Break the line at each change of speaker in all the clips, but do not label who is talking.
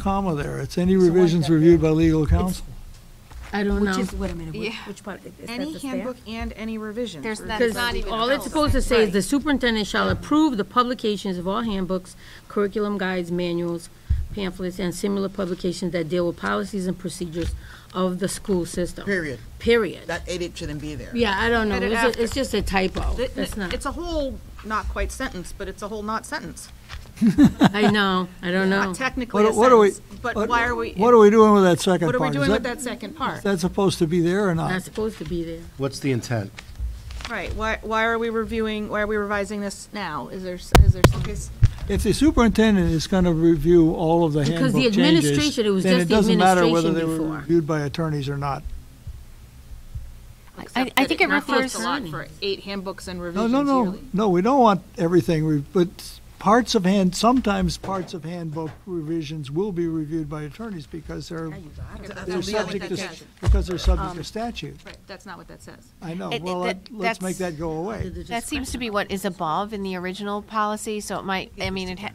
comma there. It's any
So what's
revisions
that
reviewed by legal counsel.
I don't
Which
know.
is, wait a minute, which-
Yeah.
which part? Is that
Any
just there?
handbook and any revisions.
There's
or-
that-
Because
It's not even
all
a
it's supposed to say is
Right.
the superintendent shall approve the publications of all handbooks, curriculum guides, manuals, pamphlets, and similar publications that deal with policies and procedures of the school system.
Period.
Period.
That edit shouldn't be there.
Yeah, I don't know.
Edit
It's a-
after.
It's just a typo.
Th-
That's not,
It's a whole, not quite sentence, but it's a whole not sentence.
I know, I don't know.
Not technically a
What what are we?
sentence, but why are we,
What are we doing with that second
what
part?
are we
Is
doing with that second part?
Is that supposed to be there or
Not
not?
supposed to be there.
What's the intent?
Right, why, why are we reviewing, why are we revising this now? Is there, s- is there some?
If the superintendent is going to review all of the
Because
handbook
the
changes,
administration, it was
then
just
it
the
doesn't matter whether they
administration
were
before.
reviewed by attorneys or not.
I, I think it refers,
for eight handbooks and
No,
revisions
no, no, no, we don't want everything, re- but parts of hand, sometimes parts of handbook revisions will be reviewed by attornees because they're, they're
That's not what
subject to,
that says.
because they're subject to statute.
Right, that's not what that says.
I know,
It-
well,
it-
let- let's make
that's-
that go away.
that seems to be what is above in the original policy, so it might, I mean, it, ha-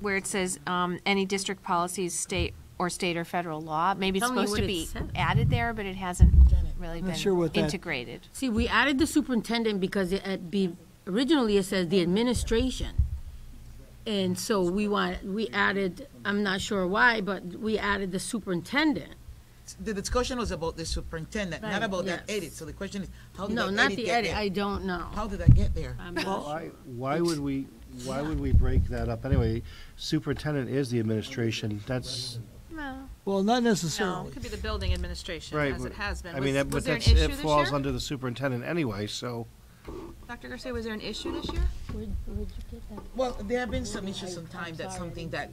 where it says, um, any district policies, state or state or federal law, maybe it's
Tell me
supposed
what
to
it
be
said.
added there, but it hasn't really
Not sure
been
what that-
integrated.
See, we added the superintendent because it, at be, originally it says the administration. And so we want, we added, I'm not sure why, but we added the superintendent.
The discussion was about the superintendent, not about that
yes.
edit. So the question is, how did
No,
that
not
edit
the
get
edit, I
there?
don't know.
How did that get there?
I'm not sure.
Why, why would we, why would we break that up anyway? Superintendent is the administration, that's.
Well, not necessarily.
It could be the building administration,
right.
as it has been.
I mean,
Was-
that-
Was
but
there an
that's,
issue
it
this
falls
year?
under the superintendent anyway, so.
Dr. Garcia, was there an issue this year?
Well, there have been some issues sometimes that something that,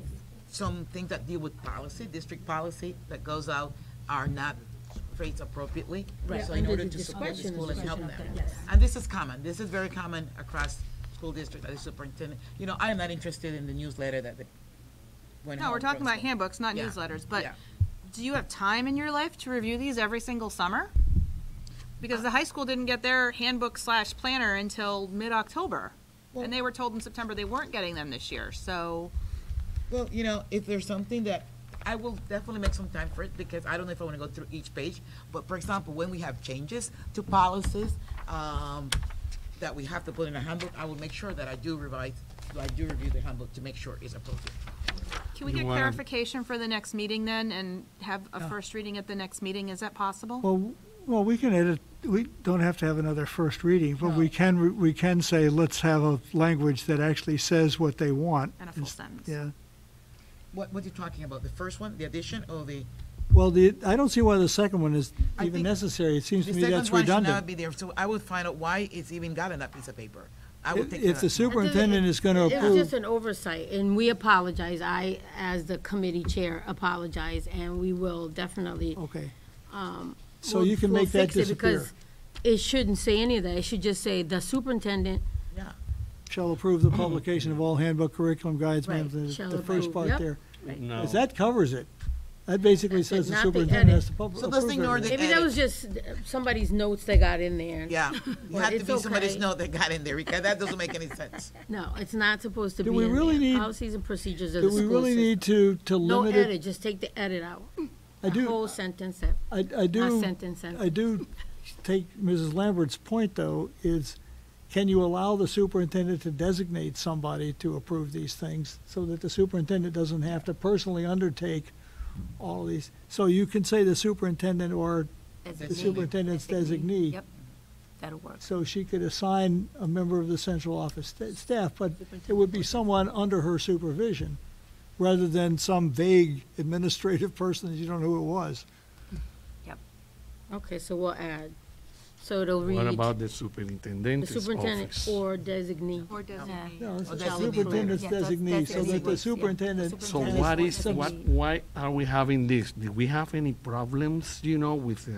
some things that deal with policy, district policy that goes out are not phrased appropriately.
Right.
So in
Under
order
the
to support the
discretion
school
is
and help
right
them.
up there, yes.
And this is common, this is very common across school districts, as a superintendent. You know, I am not interested in the newsletter that the. went
No, we're
home
talking
from
about
school.
handbooks, not
Yeah.
newsletters, but
Yeah.
do you have time in your life to review these every single summer? Because the high school didn't get their handbook slash planner until mid-October. And they were told in September they weren't getting them this year, so.
Well, you know, if there's something that, I will definitely make some time for it, because I don't know if I wanna go through each page, but for example, when we have changes to policies, um, that we have to put in a handbook, I will make sure that I do revise, I do review the handbook to make sure it's appropriate.
Can we
You
get
wanna-
clarification for the next meeting then and have a first reading at the next meeting? Is that possible?
Well, well, we can edit, we don't have to have another first reading, but we can, re- we can say, let's have a language that actually says what they want.
And a full
It's-
sentence.
Yeah.
What, what are you talking about, the first one, the addition, or the?
Well, the, I don't see why the second one is
I
even
think
necessary. It seems to
The
me
second
that's
one should not
redundant.
be there, so I would find out why it's even got on that piece of paper. I
If
would
uh,
take
if
that
the
out.
superintendent is going to
It's just
approve,
an oversight, and we apologize. I, as the committee chair, apologize, and we will definitely.
okay.
um,
Oh, So
we'll-
you can
we'll
make that
fix it because
disappear.
It shouldn't say any of that. It should just say the superintendent
Yeah.
Shall approve the publication of all handbook curriculum guides,
Right.
ma'am, the
Shall
the first
approve.
part
Yep.
there.
No.
'Cause that covers it. That basically
That's it,
says the
not the
superintendent
edit.
has to pub-
So
approve
let's ignore
everything.
the-
Maybe that was just uh, somebody's notes they got in there.
Yeah, you have to
it's
be somebody's
okay.
note that got in there, because that doesn't make any sense.
No, it's not supposed to be
Do
in
we
there.
really need-
Policies and procedures of
Do
the
we
school
really
system.
need to, to
No
limit it?
edit, just take the edit out.
I
The
do,
whole sentence, that-
I I
not
do,
sentence,
I
sentence.
do take Mrs. Lambert's point, though, is can you allow the superintendent to designate somebody to approve these things so that the superintendent doesn't have to personally undertake all these? So you can say the superintendent or the superintendent's designee.
Yep, that'll work.
So she could assign a member of the central office sta- staff, but it would be someone under her supervision, rather than some vague administrative person that you don't know who it was.
Okay, so we'll add. So it'll read
What about
the
the superintendent's
superintendent
office?
or designee.
Or designate.
No, it's
Oh,
the
that's the
superintendent's
employer. Yeah, that's-
designee,
that's
so that
designee, yeah.
the superintendent.
So
Superintendent.
what is,
Some-
what, why are we having this? Do we have any problems, you know, with, uh,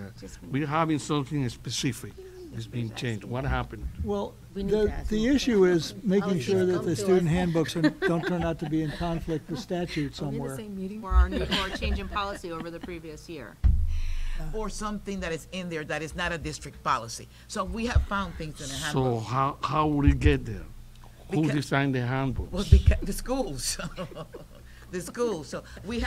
we're having something specific is being changed. What happened?
Well,
We need to
the,
ask
the
them.
issue is making
Policies
sure that
come
the
to
student
us.
handbooks are- don't turn out to be in conflict with statute somewhere.
Or our new, or change in policy over the previous year.
or something that is in there that is not a district policy. So we have found things in the
So
handbook.
how, how would it get there? Who
Because-
designed the
Was
handbooks?
because, the schools. the school. So we